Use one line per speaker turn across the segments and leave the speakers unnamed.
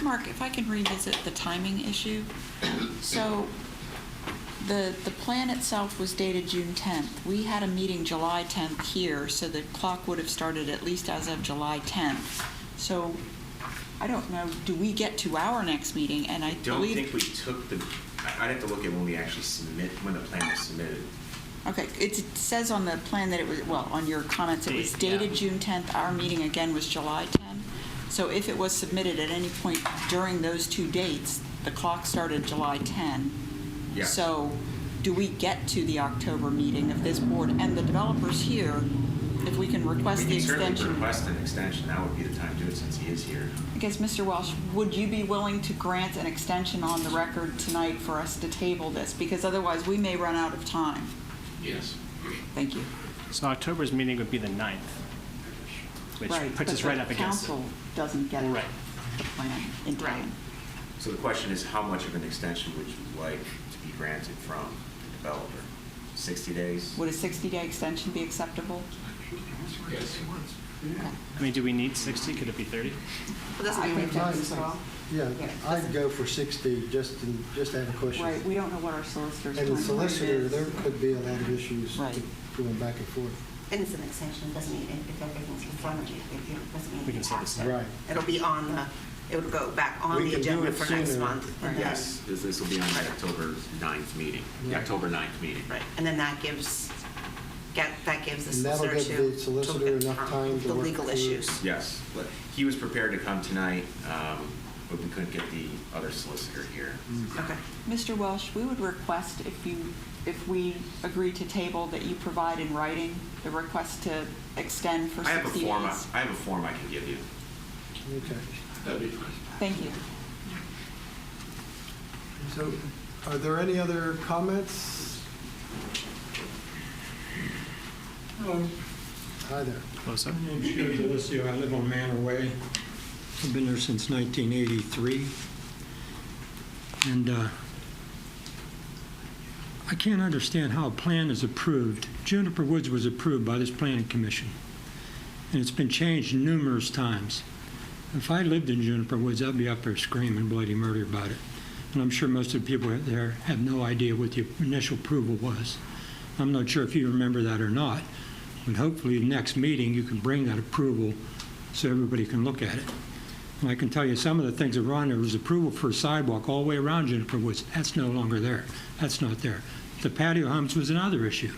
Mark, if I can revisit the timing issue. So the, the plan itself was dated June 10th. We had a meeting July 10th here, so the clock would have started at least as of July 10th. So I don't know, do we get to our next meeting? And I
I don't
believe.
think we took the, I- I'd have to look at when we actually submit, when the plan was submitted.
Okay, it's- it says on the plan that it was, well, on your comments, it was
Date, yeah.
dated June 10th. Our meeting again was July 10th. So if it was submitted at any point during those two dates, the clock started July 10.
Yeah.
So do we get to the October meeting of this board and the developers here, if we can request the
We can certainly
extension?
request an extension, that would be the time to do it since he is here.
I guess, Mr. Welsh, would you be willing to grant an extension on the record tonight for us to table this? Because otherwise, we may run out of time.
Yes.
Thank you.
So October's meeting would be the 9th, which
Right,
puts
but
us right
the
up against it.
Council doesn't get
Well, right.
the plan in time.
So the question is, how much of an extension would you like to be granted from the developer? 60 days?
Would a 60-day extension be acceptable?
Yes.
Okay.
I mean, do we need 60? Could it be 30?
Mm-hmm. Well, that's not
I
going
think
to
that's-
at all.
Yeah,
Yeah.
I'd go for 60, just to, just to have a question.
Right, we don't know what our solicitor's
And
doing.
the solicitor, there could be a lot of issues
Right.
going back and forth.
And it's an extension, it doesn't mean it- if everything's in front of you, if you- it doesn't mean.
We can
you
set
have
this
to.
up.
Right.
It'll be on the, it would go back on
We
the
can do
agenda
it
for next
sooner.
month. and then-
Yes, this, this will be on the October 9th meeting, the
Right.
October 9th meeting.
Right, and then that gives, get, that gives the
And that'll
solicitor to.
give the solicitor
to get
enough time to
The
work
legal
through-
issues.
Yes, but he was prepared to come tonight, um, but we couldn't get the other solicitor here.
Okay.
Mr. Welsh, we would request if you, if we agree to table, that you provide in writing the request to extend for 60
I have a
days.
form, I I have a form I can give you.
Okay.
That'd be fine.
Thank you.
So are there any other comments? Um, Hi there.
Close up.
My name's Joe Delisio. I live on Manor Way. I've been there since 1983. And uh, I can't understand how a plan is approved. Juniper Woods was approved by this planning commission, and it's been changed numerous times. If I lived in Juniper Woods, I'd be up there screaming bloody murder about it. And I'm sure most of the people there have no idea what the initial approval was. I'm not sure if you remember that or not, but hopefully the next meeting, you can bring that approval so everybody can look at it. And I can tell you, some of the things that were on there was approval for a sidewalk all the way around Juniper Woods. That's no longer there. That's not there. The patio homes was another issue.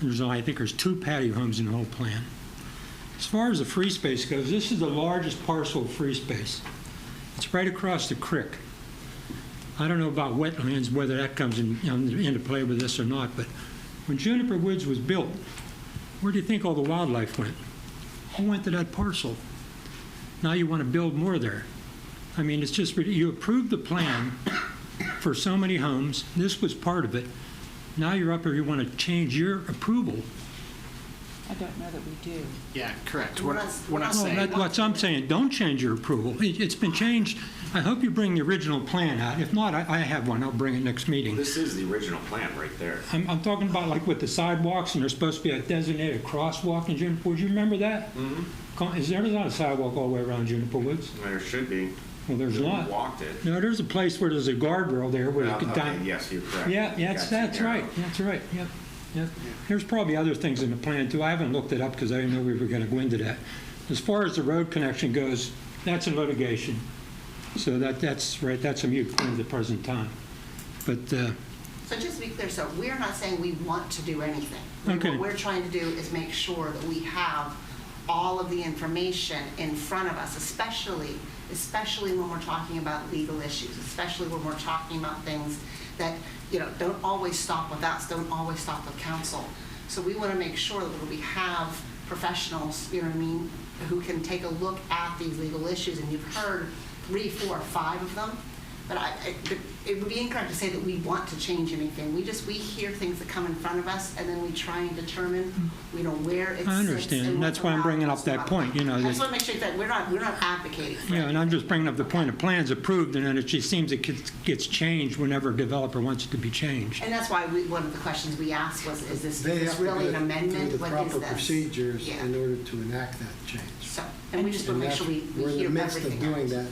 There's, I think there's two patio homes in the whole plan. As far as the free space goes, this is the largest parcel of free space. It's right across the creek. I don't know about wetlands, whether that comes in- in- into play with this or not, but when Juniper Woods was built, where do you think all the wildlife went? All went to that parcel. Now you want to build more there. I mean, it's just, you approved the plan for so many homes, this was part of it. Now you're up here, you want to change your approval.
I don't know that we do.
Yeah, correct.
We're not- we're not
No,
saying-
that's what Oh, I'm saying, don't change your approval. It- It's been changed. I hope you bring the original plan out. If not, I I have one, I'll bring it next meeting.
This is the original plan right there.
I'm, I'm talking about like with the sidewalks, and there's supposed to be a designated crosswalk in Juniper Woods. You remember that? Mm-hmm. Is there not a sidewalk all the way around Juniper Woods?
There should be.
Well, there's
We
not.
Walked it. Uh,
No, there's a place where there's a guardrail there where you could
Okay,
down.
Yes, you're correct.
Yeah, that's,
Got you
that's
there.
right, that's right, yep, yep. There's probably other things in the plan too. I haven't looked it up because I didn't know we were going to go into that. As far as the road connection goes, that's in litigation. So that, that's right, that's a mute point at the present time. But, uh,
So just to be clear, so we're not saying we want to do anything.
Okay.
What we're trying to do is make sure that we have all of the information in front of us, especially, especially when we're talking about legal issues, especially when we're talking about things that, you know, don't always stop with us, don't always stop with council. So we want to make sure that we have professionals, you know what I mean, who can take a look at these legal issues, and you've heard three, four, five of them. But I, I- but it would be incorrect to say that we want to change anything. We just, we hear things that come in front of us, and then we try and determine, you know, where it sits.
I understand,
and
that's
what's
why I'm
allowed,
bringing
what's
up that
not.
point, you know,
I
that-
just want to make sure that we're not, we're not advocating for
Yeah, and I'm just bringing up the point, of plan's approved, and then it just seems it gets- gets changed whenever a developer wants it to be changed.
And that's why we, one of the questions we asked was, is this, is
They
this
have to
really
go
an
through
amendment?
the
What is
proper
this?
procedures
Yeah.
in order to enact that change.
So, and we just
And
want to make sure
that's-
we, we hear everything.
We're in the midst of doing
else.
that